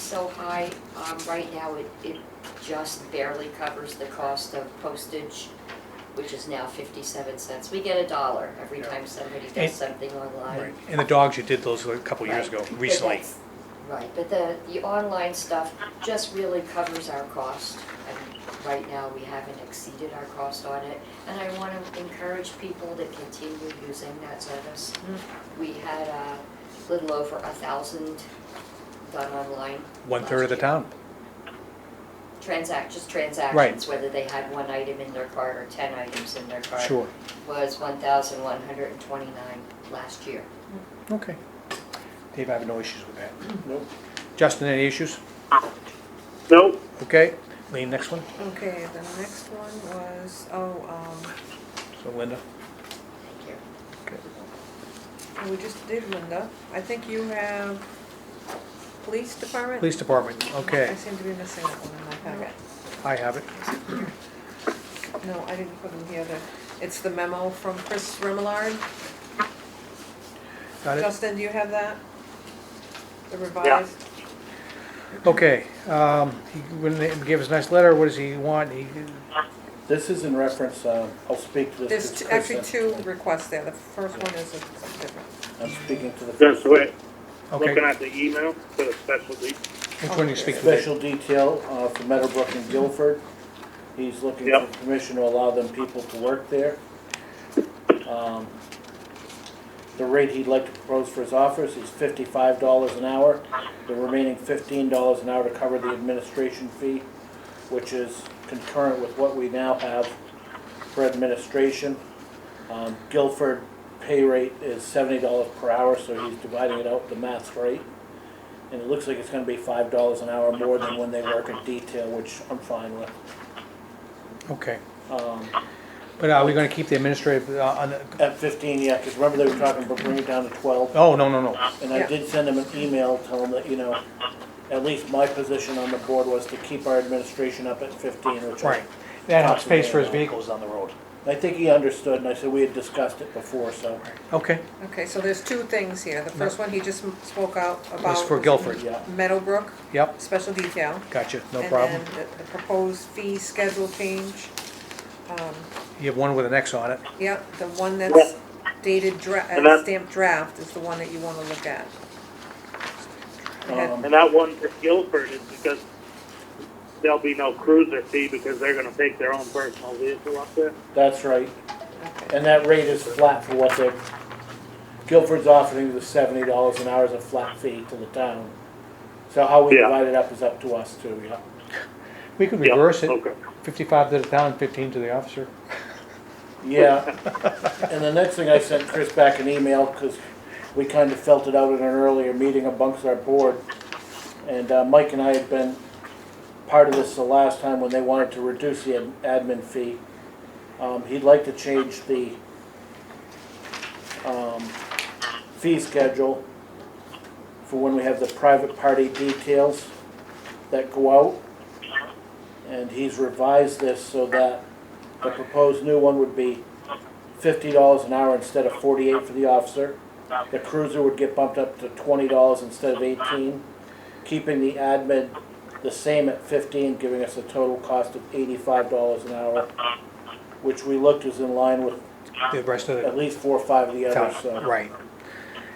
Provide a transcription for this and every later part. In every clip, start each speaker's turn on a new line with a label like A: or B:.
A: so high, um, right now it, it just barely covers the cost of postage, which is now fifty-seven cents. We get a dollar every
B: Yeah.
A: time somebody
C: And-
A: does something online.
C: Right, and the dogs, you did those a couple years ago,
A: Right. But
C: recently.
A: that's- Right, but the, the online stuff just really covers our cost. And right now, we haven't exceeded our cost on it. And I want to encourage people to continue using that service.
C: Mm-hmm.
A: We had a little over a thousand done online.
C: One-third of the
A: last year.
C: town.
A: Transact, just transactions, whether they had one item in their cart or 10 items in their cart.
C: Sure,
A: Was 1,129 last year.
C: okay. Dave, I have no issues with that.
B: Nope.
C: Justin, any issues?
B: Nope.
C: Okay, Lean, next one.
D: Okay, the next one was, oh, um,
C: So Linda,
A: Thank you.
D: um, we just did Linda. I think you have police department?
C: Police Department,
D: I
C: okay,
D: seem to be missing that one in my packet.
C: I have it.
D: No, I didn't put them here. The- It's the memo from Chris Remillard.
C: Got it?
D: Justin, do you have that? The revised?
C: Okay, um, he, when they give us a nice letter, what does he want? He,
B: This is in reference, um, I'll speak to this.
D: There's
B: this
D: t- actually
B: person.
D: two requests there. The first one is something different.
B: I'm speaking to the.
E: Just wait,
C: okay,
E: looking at the email for the specialty.
C: which one you speak to?
B: Special detail uh, for Meadowbrook and Guilford. He's looking for
E: Yep.
B: permission to allow them people to work there. Um, The rate he'd like to propose for his office is fifty-five dollars an hour. The remaining fifteen dollars an hour to cover the administration fee, which is concurrent with what we now have for administration. Um, Guilford pay rate is seventy dollars per hour, so he's dividing it out, the math rate. And it looks like it's gonna be five dollars an hour more than when they work in detail, which I'm fine with.
C: Okay,
B: Um,
C: but are we gonna keep the administrative, uh, on, the-
B: At fifteen, yeah, because remember they were talking about bringing it down to twelve,
C: oh, no, no, no.
B: and I
D: Yeah.
B: did send them an email telling them that, you know, at least my position on the board was to keep our administration up at fifteen, which I,
C: Right, that helps space for his vehicles on the road.
B: I think he understood, and I said we had discussed it before, so,
C: Okay,
D: Okay, so there's two things here. The first one he just m- spoke out about.
C: was for Guilford,
B: yeah.
D: Meadowbrook,
C: yep,
D: special detail.
C: gotcha, no problem.
D: And then the- the proposed fee schedule change,
C: You have one with an X on it.
D: yep, the one that's dated dra-
E: And that-
D: uh, stamped draft is the one that you wanna look at. Go ahead.
B: Um,
E: And that one for Guilford is because there'll be no cruiser fee because they're gonna take their own personal vehicle up there.
B: That's right.
D: Okay.
B: And that rate is flat for what they're, Guilford's offering the seventy dollars an hour as a flat fee to the town. So how we
E: Yeah.
B: divide it up is up to us too, yeah.
C: We could
E: Yeah,
C: reverse it,
E: Okay.
C: fifty-five to the town, fifteen to the officer.
B: Yeah, and the next thing I sent Chris back an email, because we kind of felt it out in an earlier meeting amongst our board. And uh, Mike and I had been part of this the last time when they wanted to reduce the ad- admin fee. Um, He'd like to change the um, fee schedule for when we have the private party details that go out. And he's revised this so that the proposed new one would be fifty dollars an hour instead of forty-eight for the officer. The cruiser would get bumped up to twenty dollars instead of eighteen, keeping the admin the same at fifteen, giving us a total cost of eighty-five dollars an hour, which we looked is in line with
C: The rest of
B: at
C: the
B: least four or five of the others,
C: town,
B: so.
C: right.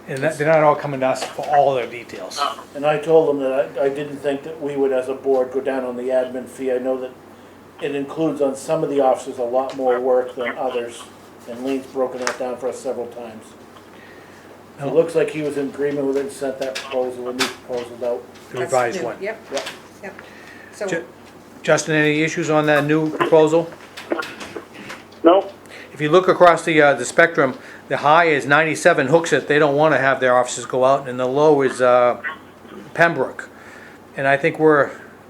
C: And that, they're not all coming to us for all their details.
B: And I told them that I, I didn't think that we would, as a board, go down on the admin fee. I know that it includes on some of the officers a lot more work than others, and Lean's broken that down for us several times. It looks like he was in agreement with it and sent that proposal, a new proposal out.
C: The
D: That's
C: revised
D: new.
C: one.
D: Yep,
B: Yep.
D: yep. So,
C: Ju- Justin, any issues on that new proposal?
E: No,
C: If you look across the, uh, the spectrum, the high is ninety-seven hooks it, they don't wanna have their officers go out, and the low is, uh, Pembroke. And I think we're,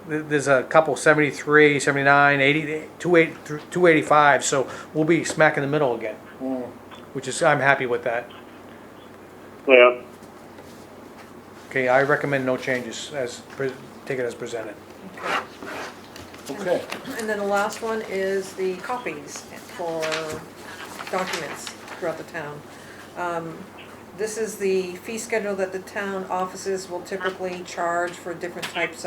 C: th- there's a couple 73, 79, 80, 285, so we'll be smack in the middle again. Which is, I'm happy with that.
E: yeah,
C: Okay, I recommend no changes as, pre- take it as presented.
B: Okay,
D: and then the last one is the copies for documents throughout the town. Um, this is the fee schedule that the town offices will typically charge for different types